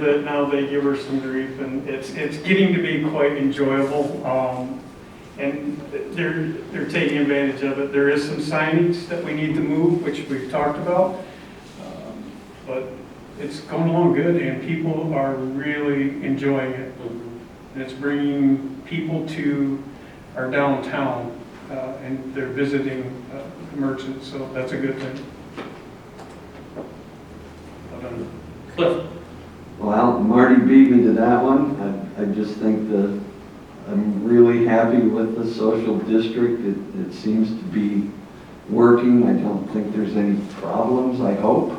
that now they give her some grief, and it's, it's getting to be quite enjoyable. Um, And they're, they're taking advantage of it. There is some signage that we need to move, which we've talked about. Um, But it's going along good, and people are really enjoying it. And it's bringing people to our downtown, uh, and they're visiting uh, the merchants, so that's a good thing. Well done. Cliff, Well, Marty beat me to that one. I, I just think that I'm really happy with the social district. It, it seems to be working. I don't think there's any problems, I hope.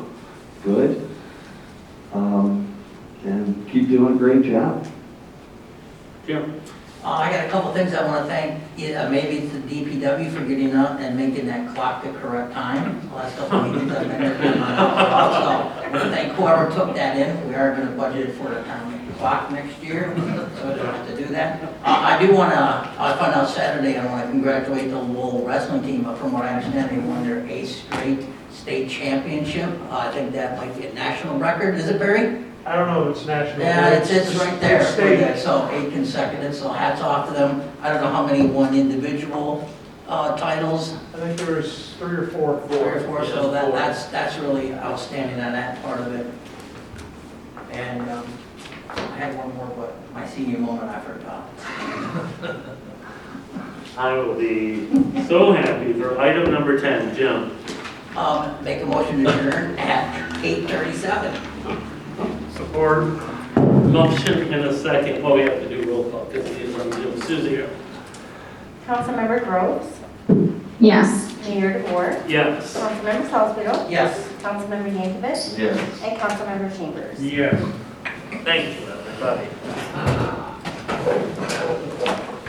Good. Um, and keep doing a great job. Jim, Uh, I got a couple things I want to thank, yeah, maybe it's the DPW for getting up and making that clock the correct time. Last couple of meetings I've been there, been my fault, so I want to thank whoever took that in, we are going to budget it for the town clock next year, so we don't have to do that. Uh, I do want to, I found out Saturday, I want to congratulate the Lowell wrestling team, but from what I understand, they won their eighth straight state championship. Uh, I think that might be a national record, is it Barry? I don't know if it's national. Yeah, but it's, it's right there, it's Yeah, state. so eight consecutive, so hats off to them. I don't know how many won individual uh, titles, I think there was three or four. three or four, so that, Four. that's, that's really outstanding on that part of it. And um, I had one more, but my senior moment I forgot. I will be so happy for item number 10, Jim. Um, Make a motion to adjourn at 8:37. Support. Motion in a second, well, we have to do roll call because it is on Jim. Susie, Councilmember Groves, Yes. Mayor DeBoer, yes. Councilmember Salzweedl, Yes. Councilmember Yankovic, Yes. and Councilmember Chambers. Yes. Thank you, everybody.